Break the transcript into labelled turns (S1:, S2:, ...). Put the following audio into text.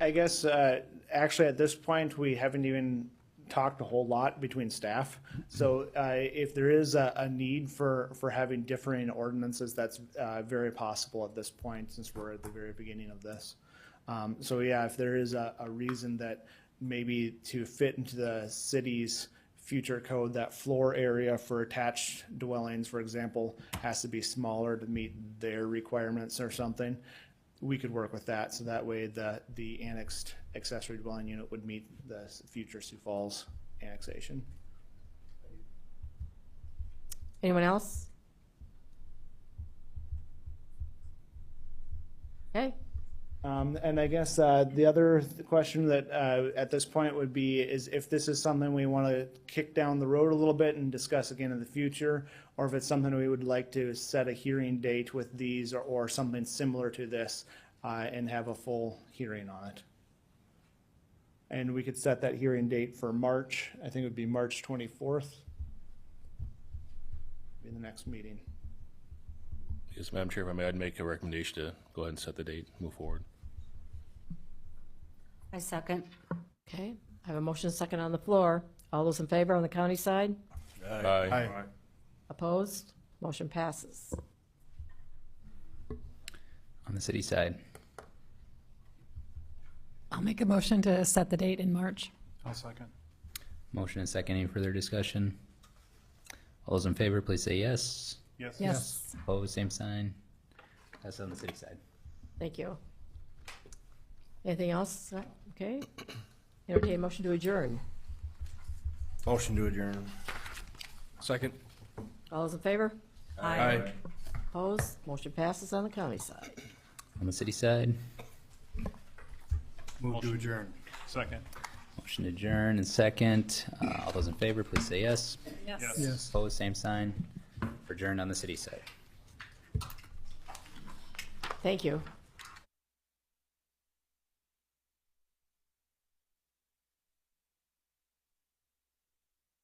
S1: I guess, uh, actually, at this point, we haven't even talked a whole lot between staff. So uh, if there is a, a need for, for having differing ordinances, that's uh, very possible at this point, since we're at the very beginning of this. Um, So yeah, if there is a, a reason that maybe to fit into the city's future code, that floor area for attached dwellings, for example, has to be smaller to meet their requirements or something, we could work with that, so that way the, the annexed accessory dwelling unit would meet the s- future Sioux Falls annexation.
S2: Anyone else? Okay,
S1: Um, and I guess, uh, the other th- question that, uh, at this point would be is if this is something we want to kick down the road a little bit and discuss again in the future, or if it's something we would like to set a hearing date with these or, or something similar to this, uh, and have a full hearing on it. And we could set that hearing date for March, I think it would be March twenty-fourth. Be the next meeting.
S3: Yes, Madam Chair, if I may, I'd make a recommendation to go ahead and set the date, move forward.
S4: I second.
S2: okay. I have a motion second on the floor. All those in favor on the county side?
S3: Aye.
S2: Opposed? Motion passes.
S5: on the city side.
S6: I'll make a motion to set the date in March.
S5: Motion and second. Any further discussion? All those in favor, please say yes.
S6: Yes.
S5: Opposed, same sign. That's on the city side.
S2: Thank you. Anything else? Okay. Entertain a motion to adjourn.
S7: Motion to adjourn.
S3: Second.
S2: All those in favor?
S3: Aye.
S2: Opposed? Motion passes on the county side.
S5: On the city side,
S7: Move to adjourn.
S8: Second.
S5: motion to adjourn and second. Uh, all those in favor, please say yes.
S6: Yes.
S5: Opposed, same sign. Adjourned on the city side.
S2: Thank you.